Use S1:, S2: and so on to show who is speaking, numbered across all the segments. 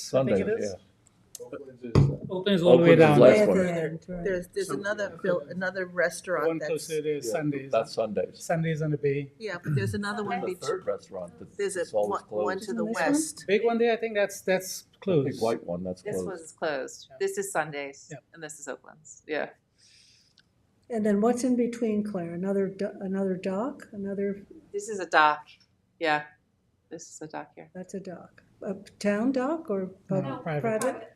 S1: Sunday,
S2: it is.
S1: yeah.
S3: Opens all the way
S1: Opens
S3: down.
S1: last
S4: Yeah,
S1: one.
S4: there- There's, there's
S2: Some-
S4: another, buil- another restaurant
S2: One
S4: that's,
S2: closer to Sundays,
S1: That's Sundays.
S2: Sundays on the bay.
S4: yeah, but there's another one,
S1: The
S4: be-
S1: third restaurant that-
S4: there's a,
S1: that's always
S4: one one
S1: closed.
S4: to the
S5: Isn't this one?
S4: west.
S2: Big one there, I think that's, that's
S1: Big
S2: closed.
S1: white one, that's
S5: This
S1: closed.
S5: one's closed. This is Sundays
S2: Yeah.
S5: and this is Oakland's. Yeah.
S6: And then what's in between, Claire? Another, do- another dock? Another,
S5: This is a dock. Yeah. This is a dock here.
S6: that's a dock. A town dock or
S2: No,
S6: pub-
S2: Uh, private.
S6: private?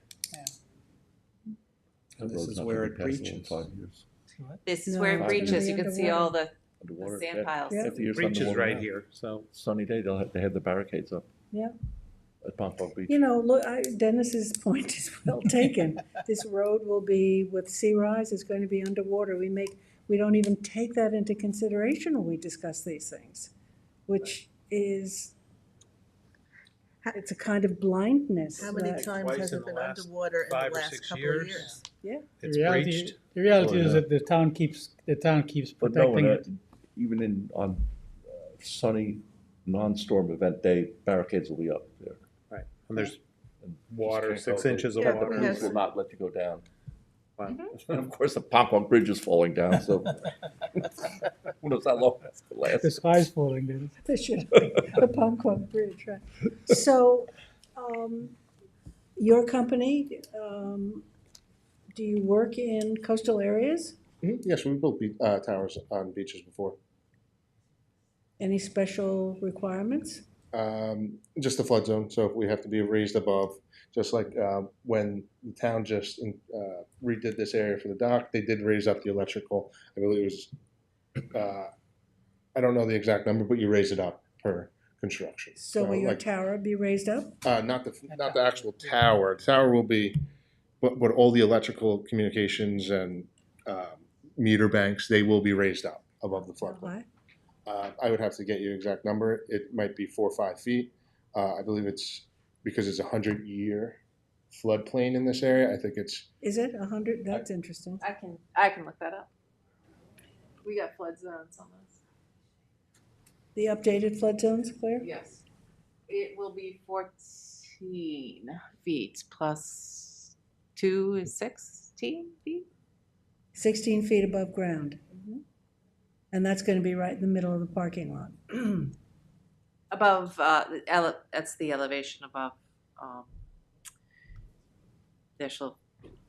S1: That
S7: This
S1: road's
S7: is
S1: not
S7: where
S1: gonna
S7: it
S1: be passable in
S7: breaches.
S1: Five years.
S5: This is
S6: No,
S5: where
S1: it's
S5: it
S1: gonna
S5: breaches.
S6: be
S5: You can see all the, the
S1: Underwater,
S5: sand
S1: yeah.
S5: piles.
S6: Yeah.
S1: Fifty years
S8: Breach is
S1: underwater
S8: right
S1: now.
S8: here, so.
S1: Sunny day, they'll, have- they had the barricades up.
S6: Yeah.
S1: At Pompano Beach.
S6: You know, look, I- Dennis's point is well taken. This road will be, with sea rise, it's going to be underwater. We make, we don't even take that into consideration when we discuss these things, which is, it's a kind of blindness.
S4: How many
S6: that-
S4: times
S8: Twice
S4: has
S8: in
S4: it
S8: the
S4: been
S8: last
S4: underwater in
S8: five
S4: the
S8: or
S4: last
S8: six
S4: couple of
S8: years.
S4: years?
S8: It's
S2: The reality-
S8: breached.
S2: The reality
S1: Oh,
S2: is
S1: yeah.
S2: that the town keeps, the town keeps
S1: But no,
S2: protecting
S1: and, uh,
S2: it.
S1: even in, on uh, sunny, non-storm event day, barricades will be up there.
S8: Right, and there's
S1: And just
S8: water,
S1: can't
S8: six
S1: go-
S8: inches of
S4: Yeah, but Mm-hmm. we
S8: water.
S4: have-
S1: Crews will not let you go down.
S8: Wow.
S1: And of course, the Pompano Bridge is falling down, so. Who knows how long that's gonna last.
S2: The sky's falling, Dennis.
S6: They should, the Palmquag Bridge, right. So, um, your company, um, do you work in coastal areas?
S9: Mhm, Yes, we built be- uh, towers on beaches before.
S6: Any special requirements?
S9: Um, Just the flood zone, so we have to be raised above, just like uh, when the town just uh, redid this area for the dock, they did raise up the electrical. I believe it was, uh, I don't know the exact number, but you raise it up per construction.
S6: So will your
S9: like,
S6: tower be raised up?
S9: uh, Not the, not the actual tower, The tower will be, but, but all the electrical communications and um, meter banks, they will be raised up above the flood line.
S6: Why?
S9: Uh, I would have to get you exact number. It might be four or five feet. Uh, I believe it's because it's a hundred year floodplain in this area. I think it's
S6: Is it a hundred? That's interesting.
S5: I can, I can look that up. We got flood zones on this.
S6: The updated flood zones, Claire?
S5: Yes. It will be fourteen feet plus two is sixteen feet.
S6: Sixteen feet above ground.
S9: Mm-hmm.
S6: And that's gonna be right in the middle of the parking lot.
S5: Above, uh, the ele- that's the elevation above, um, national,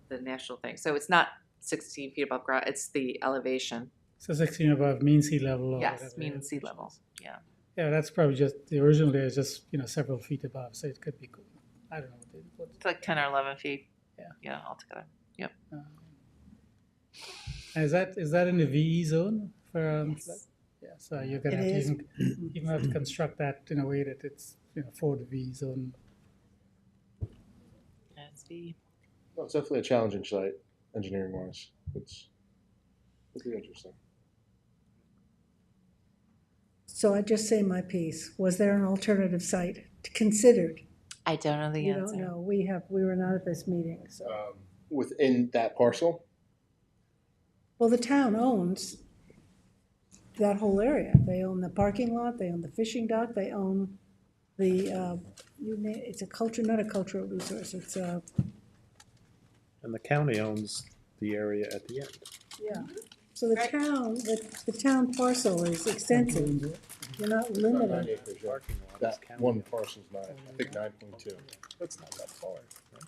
S5: the national thing. So it's not sixteen feet above ground, it's the elevation.
S2: So sixteen above mean sea level or
S5: Yes,
S2: whatever it
S5: mean
S2: is.
S5: sea level, yeah.
S2: Yeah, that's probably just, the original there is just, you know, several feet above, so it could be, cool. I don't know. what they- what-
S5: It's like ten or eleven feet.
S2: Yeah.
S5: Yeah, altogether.
S2: Uh, Is that, is that in the VE zone for, um, yeah, so you're gonna
S6: It
S2: have to
S6: is.
S2: even, even have to construct that in a way that it's, you know, for the VE zone.
S5: Yeah, it's the-
S9: well, it's definitely a challenging site engineering wise. It's it'll be interesting.
S6: So I just say my piece. Was there an alternative site considered?
S5: I don't know the
S6: You don't
S5: answer.
S6: know. We have, we were not at this meeting, so.
S9: Um, within that parcel,
S6: Well, the town owns that whole area. They own the parking lot, they own the fishing dock, they own the, uh, you na- it's a culture, not a cultural resource, it's uh, a,
S8: And the county owns the area at the end.
S6: yeah. So the town, the, the town parcel is extensive. You're not
S9: About nine
S6: limited.
S9: acres, yeah.
S8: Parking lot is
S9: that
S8: county
S9: one
S8: owned.
S9: parcel's nine, I think nine point two.
S8: That's not that far. right?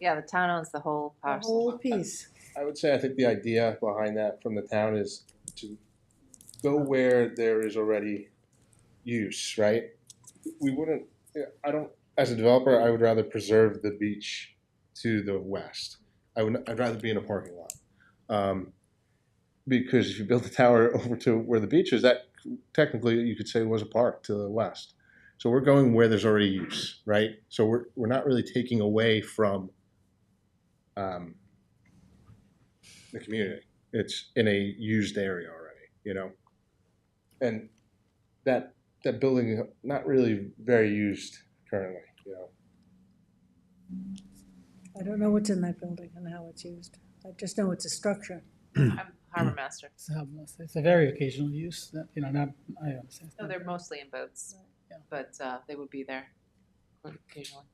S5: Yeah, the town owns the whole
S6: The
S5: parcel.
S6: whole piece.
S9: I would say I think the idea behind that from the town is to go where there is already use, right? We wouldn't, yeah, I don't, as a developer, I would rather preserve the beach to the west. I would, I'd rather be in a parking lot. Um, because if you build the tower over to where the beach is, that technically you could say was a park to the west. So we're going where there's already use, right? So we're, we're not really taking away from, um, the community. It's in a used area already, you know? And that, that building is not really very used currently, you know?
S6: I don't know what's in that building and how it's used. I just know it's a structure.
S5: I'm harbor master.
S2: It's a- It's a very occasional use, that, you know, not, I understand.
S5: No, they're mostly in boats,
S2: Yeah.
S5: but uh, they would be there occasionally.